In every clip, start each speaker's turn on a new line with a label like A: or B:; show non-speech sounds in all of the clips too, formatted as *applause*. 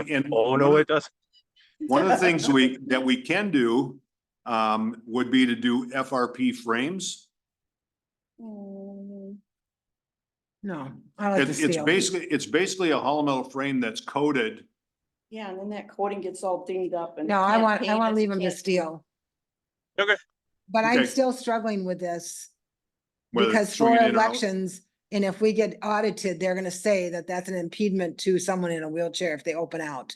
A: *laughs*
B: And
A: Oh, no, it doesn't.
B: *laughs* One of the things
C: *laughs*
B: we, that we can do, um, would be to do FRP frames.
C: Mm,
D: No, I like the
B: It's, it's
D: steel.
B: basically, it's basically a hollow metal frame that's coated.
C: Yeah, and then that coating gets all dinged up and.
D: No, I want, I want to leave them
C: to
D: to steel.
A: Okay.
D: But I'm
B: Okay.
D: still struggling with this
B: whether it's
D: because for
B: swinging in or out.
D: elections, and if we get audited, they're gonna say that that's an impediment to someone in a wheelchair if they open out.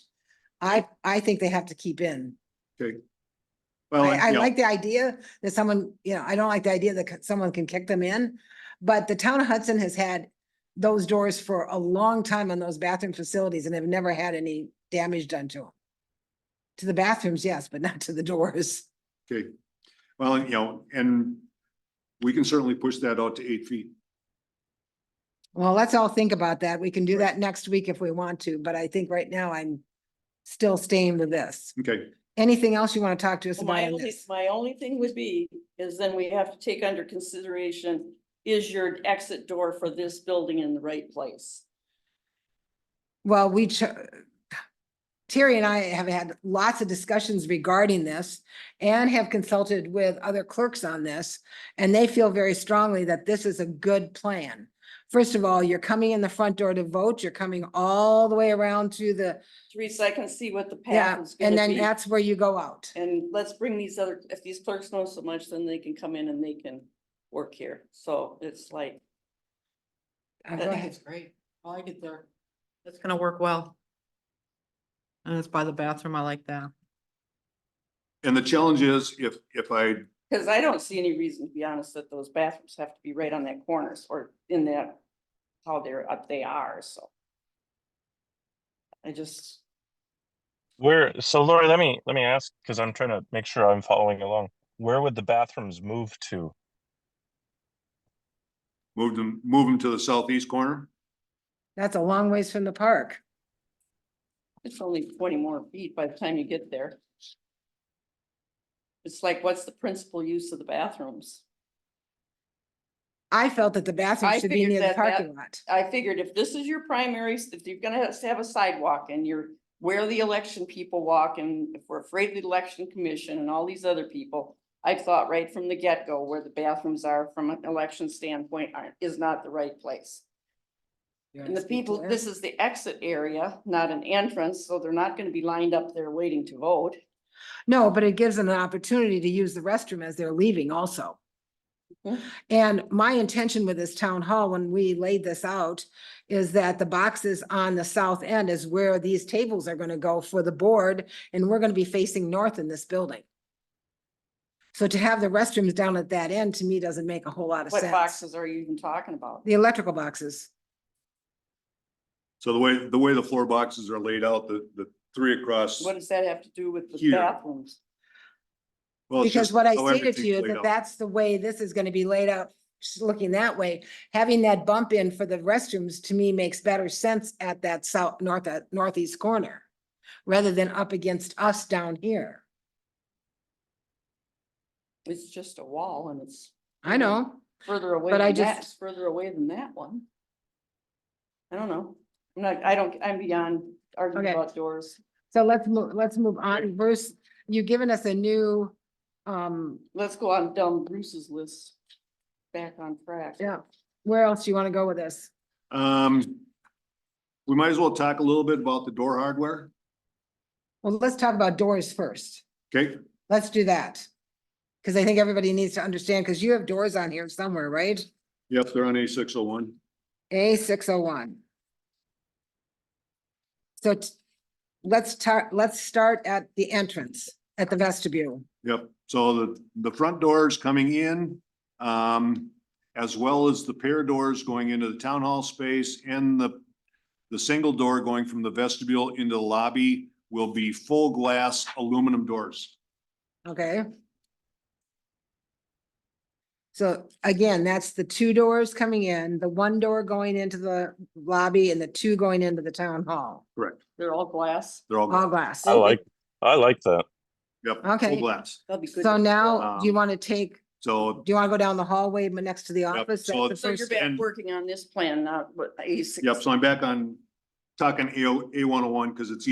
D: I, I think they have to keep in.
B: Well,
D: I, I
B: you know,
D: like the idea that someone, you know, I don't like the idea that c- someone can kick them in, but the town of Hudson has had those doors for a long time on those bathroom facilities and have never had any damage done to them. To the bathrooms, yes, but not to the doors.
B: Okay, well, you know, and we can certainly push that out to eight feet.
D: Well, let's all think about that. We can do that next week if we want to, but I think right now I'm still staying with this.
B: Okay,
D: Anything else you want to talk to us
C: Well,
D: about
C: My
D: on
C: only,
D: this?
C: my only thing would be, is then we have to take under consideration, is your exit door for this building in the right place?
D: Well, we, ch- Terry and I have had lots of discussions regarding this and have consulted with other clerks on this, and they feel very strongly that this is a good plan. First of all, you're coming in the front door to vote, you're coming all the way around to the,
C: Teresa, I can see what the path
D: yeah,
C: is
D: and
C: gonna
D: then
C: be.
D: that's where you
C: *laughs*
D: go out.
C: And let's bring these other, if these clerks know so much, then they can come in and they can work here. So it's like,
D: Uh,
E: I
D: go
E: think
D: ahead.
E: it's great. I like it there. It's gonna work well. And it's by the bathroom. I like that.
B: and the challenge is if, if I,
C: cause I don't see any reason, to be honest, that those bathrooms have to be right on that corners or in that, how they're, up they are, so. I just.
A: Where, so Lori, let me, let me ask, because I'm trying to make sure I'm following along. Where would the bathrooms move to?
B: move them, move them to the southeast corner,
D: That's a long ways from the park.
C: It's only twenty more feet by the time you get there. It's like, what's the principal use of the bathrooms?
D: I felt that the bathroom
C: I
D: should be
C: figured
D: near the
C: that that-
D: parking lot.
C: I figured if this is your primaries, if you're gonna have- have a sidewalk and you're where the election people walk and if we're afraid of the election commission and all these other people, I thought right from the get-go where the bathrooms are from an election standpoint aren't, is not the right place. And the people, this is the exit area, not an entrance, so they're not gonna be lined up there waiting to vote.
D: No, but it gives them an opportunity to use the restroom as they're leaving also.
C: Mhm.
D: And my intention with this town hall, when we laid this out, is that the boxes on the south end is where these tables are gonna go for the board, and we're gonna be facing north in this building. So to have the restrooms down at that end, to me, doesn't make a whole lot of
C: What
D: sense.
C: boxes are you even talking about?
D: The electrical boxes,
B: so the way, the way the floor boxes are laid out, the, the three across.
C: What does that have to do with the
B: Here.
C: bathrooms?
B: well, it's
D: because
B: just
D: what I
B: how
D: stated to
B: everything's
D: you,
B: laid
D: that
B: out.
D: that's the way this is gonna be laid out, just looking that way. having that bump in for the restrooms to me makes better sense at that south, north, uh, northeast corner. Rather than up against us down here.
C: It's just a wall and it's
D: I
B: Mm-hmm.
D: know,
C: further away
D: But I
C: than that,
D: just-
C: it's further away than that one. I don't know. I'm not, I don't, I'm beyond arguing
D: Okay.
C: about doors.
D: so let's move, let's move on. Bruce, you've given us a new, um,
C: Let's go on down Bruce's list. Back on track.
D: yeah, where else do you wanna go with this?
B: Um, we might as well talk a little bit about the door hardware,
D: Well, let's talk about doors first.
B: okay?
D: Let's do that. Cause I think everybody needs to understand, cause you have doors on here somewhere, right?
B: Yep, they're on A six oh one.
D: A six oh one. So t- let's tar, let's start at the entrance, at the vestibule.
B: Yep, so the, the front doors coming in, um, as well as the pair doors going into the town hall space and the, the single door going from the vestibule into the lobby will be full glass aluminum doors.
D: Okay. So again, that's the two doors coming in, the one door going into the lobby and the two going into the town hall,
C: They're all glass.
B: They're all,
D: all glass.
A: I like, I like that.
B: yep,
D: Oh, Okay.
B: full glass.
C: That'll be good.
D: So
C: to-
D: now, do you
B: Um,
D: want to take,
B: So,
D: do you want to go down the hallway but next to the office?
B: so
D: That's
C: So
D: the
C: you're
D: first-
C: back
B: and-
C: working on this plan, not what A six.
B: yep, so I'm back on talking A, A one oh one because it's